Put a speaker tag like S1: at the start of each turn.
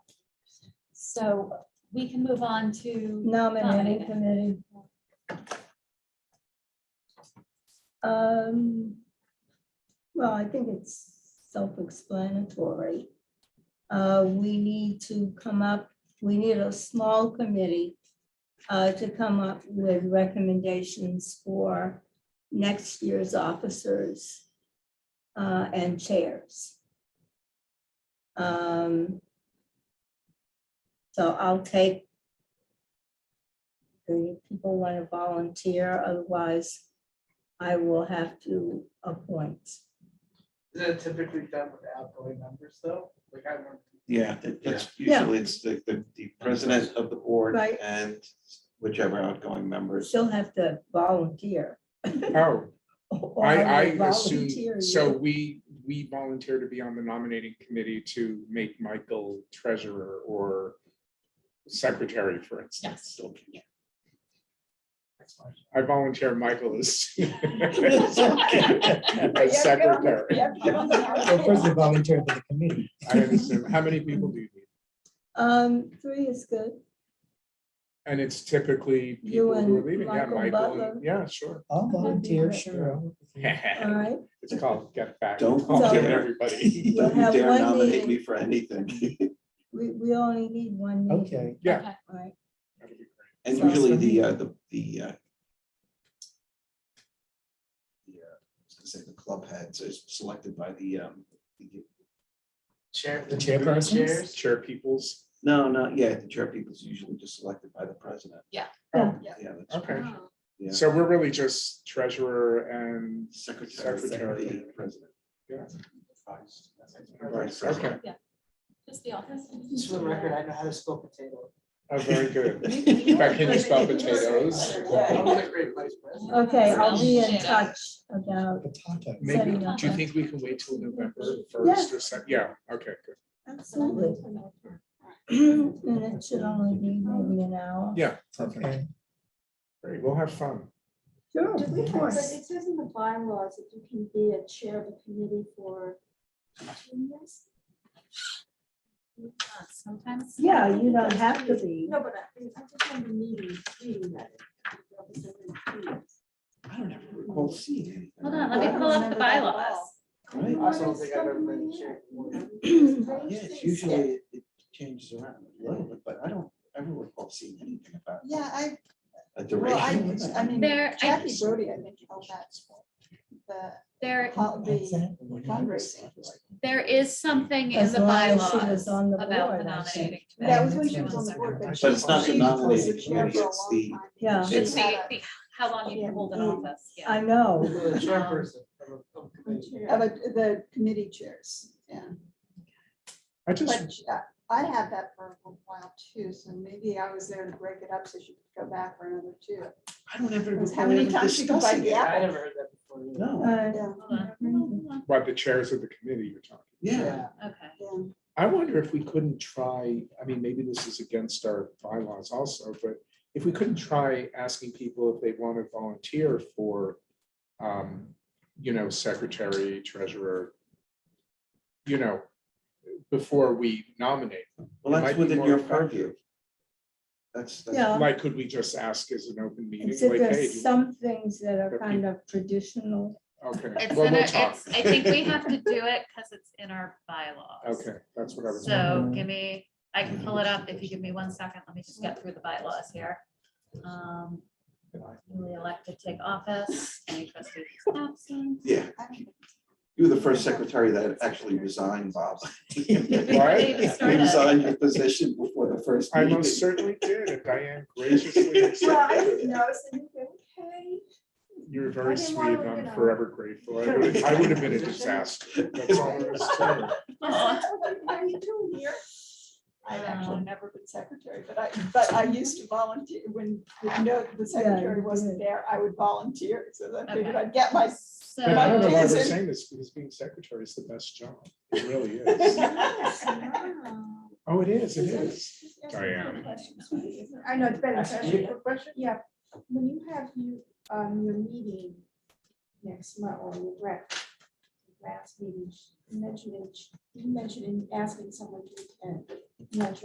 S1: So we can move on to,
S2: nominating
S1: Nominating.
S2: committee. Um, well, I think it's self-explanatory. Uh, we need to come up, we need a small committee uh, to come up with recommendations for next year's officers uh, and chairs. Um, so I'll take the people want to volunteer, otherwise I will have to appoint.
S3: Is it typically done with outgoing members though? Like I remember.
S4: Yeah, that- that's
S2: Yeah.
S4: usually it's the, the, the president of the board
S2: Right.
S4: and whichever outgoing members.
S2: She'll have to volunteer.
S5: Oh,
S2: or
S5: I, I
S2: will volunteer
S5: assume, so
S2: you.
S5: we, we volunteer to be on the nominating committee to make Michael treasurer or secretary, for instance. Okay.
S3: that's fine.
S5: I volunteer Michael as
S2: Yeah,
S5: as secretary.
S2: yeah, yeah.
S6: Well, first you volunteer for the committee.
S5: I understand. How many people do you need?
S2: Um, three is good.
S5: And it's typically
S2: You
S5: people who are
S2: and
S5: leaving. Yeah,
S2: Michael
S5: Michael,
S2: Butler.
S5: and- yeah, sure.
S6: I'll volunteer, sure. I'll-
S2: All right,
S5: It's called Get Back.
S4: Don't
S5: It's called Get
S4: volunteer.
S5: everybody.
S2: We'll
S4: Don't you
S2: have
S4: dare
S2: one
S4: nominate
S2: meeting.
S4: me for anything.
S2: we, we only need one. meeting.
S6: Okay,
S5: Yeah.
S1: okay,
S2: All right,
S5: that'd be great.
S4: And
S2: Sounds
S4: usually
S2: good.
S4: the, uh, the, the, uh, the, uh, I was gonna say the club heads is selected by the, um, the-
S3: Chair.
S6: The chairpersons?
S3: Chairs.
S5: Chair peoples.
S4: no, not yet. The chair people is usually just selected by the president.
S2: Yeah.
S4: Yeah. that's-
S5: Okay.
S1: oh,
S4: Yeah.
S5: So we're really just treasurer and
S4: Secretary,
S5: Secretary.
S4: secretary, president.
S5: Yeah.
S4: Vice.
S5: Right,
S4: Vice
S5: okay.
S4: president.
S1: just the office.
S3: Just for the record, I know how to spell potato.
S5: Oh, very good.
S1: Back
S5: Becky, you spell potatoes.
S3: I was a great vice president.
S2: okay, I'll be in
S1: Shit.
S2: touch about,
S6: potato.
S5: Maybe,
S2: Setting up.
S5: do you think we can wait till November first or second? Yeah, okay, good.
S2: absolutely. And it should only be maybe an hour.
S5: Yeah, okay.
S6: Okay.
S5: Great, we'll have fun.
S7: Do
S2: Sure,
S7: we
S2: of
S7: have, but
S2: course.
S7: it says in the bylaws that you can be a chair of a committee for two years?
S1: Sometimes.
S2: Yeah, you don't have to be.
S7: No, but I, I just remember meeting, reading that. it says in two years.
S4: I don't ever recall seeing anything.
S1: Hold on, let me pull up the bylaws.
S4: Right?
S3: I also don't think I've ever been a chair.
S4: Yeah, it's usually, it- it changes around a little bit, but I don't ever recall seeing anything about
S8: Yeah, I,
S4: a
S8: well, I,
S4: duration. limit.
S8: I mean,
S1: There- I-
S8: Kathy Brody, I think, held that, the,
S1: There,
S8: held the
S6: Exactly.
S8: fundraising.
S1: there is something in
S2: As
S1: the
S2: long as she was
S1: bylaws
S2: on the
S1: about the
S2: board, I think.
S1: nominating.
S8: That was when
S1: committee.
S8: she was on the board, but she.
S4: But it's not the
S8: she was
S4: nominating
S8: the chair
S4: committee,
S8: for a
S4: it's the,
S8: long time.
S2: Yeah.
S8: She
S1: It's the,
S8: had
S1: the- how long you can hold an office, yeah.
S2: I know.
S3: You were the chairperson of a- of a committee.
S8: a- Of a- the committee chairs, yeah,
S5: I just,
S8: but uh, I had that for a while too, so maybe I was there to break it up so she could go back for another two.
S4: I don't ever.
S8: Because how
S4: recall
S8: many
S4: ever
S8: times she could buy
S4: discussing
S8: the
S4: it.
S3: I
S8: apple?
S3: never heard that before. either.
S4: No,
S2: Uh,
S8: Yeah,
S1: Hold on, hold on,
S5: what, the chairs of the committee you're talking?
S4: yeah,
S3: Yeah.
S1: Okay.
S8: yeah.
S5: I wonder if we couldn't try, I mean, maybe this is against our bylaws also, but if we couldn't try asking people if they want to volunteer for, um, you know, secretary, treasurer, you know, before we nominate.
S4: well,
S5: It might
S4: that's
S5: be
S4: within
S5: more
S4: your
S5: effective.
S4: purview. That's, that's.
S2: Yeah.
S5: Like, could we just ask as an open meeting?
S2: Except
S5: like, hey,
S2: there's
S5: do-
S2: some things that are
S5: But
S2: kind of traditional.
S5: Okay.
S1: It's
S5: well,
S1: in
S5: we'll
S1: our,
S5: talk.
S1: it's, I think we have to do it because it's in our bylaws.
S5: Okay, that's what I was.
S1: So give me, I can pull it up if you give me one second. Let me just get through the bylaws here. Um, Newly elected take office, any trustee who's absent.
S4: Yeah,
S8: I don't think-
S4: you were the first secretary that actually resigned, Bob. You
S1: They
S5: Right?
S1: started.
S4: resigned your position before the first
S5: I
S4: meeting.
S5: most certainly did, and Diane graciously accepted it.
S8: know, so you think, okay.
S5: You were very
S8: I didn't
S5: sweet,
S8: wanna
S5: and
S8: look
S5: I'm
S8: it up.
S5: forever grateful. I would, I would have been a disaster. That's all there is to it.
S1: Aw.
S8: What are you doing here? I've actually
S1: Um,
S8: never been secretary, but I, but I used to volunteer when, you know, the secretary
S2: you
S8: wasn't
S2: did.
S8: there, I would volunteer, so I figured
S1: Okay.
S8: I'd get my.
S1: So,
S5: And I don't know why we're
S8: Jason.
S5: saying this, because being secretary is the best job. It really is. Oh, it is, it is. Diane.
S7: I know, it's better.
S3: Ask you a question?
S7: Yeah, when you have you, um, your meeting next month or your rec, last meeting, you mentioned, it- you mentioned in asking someone to attend, not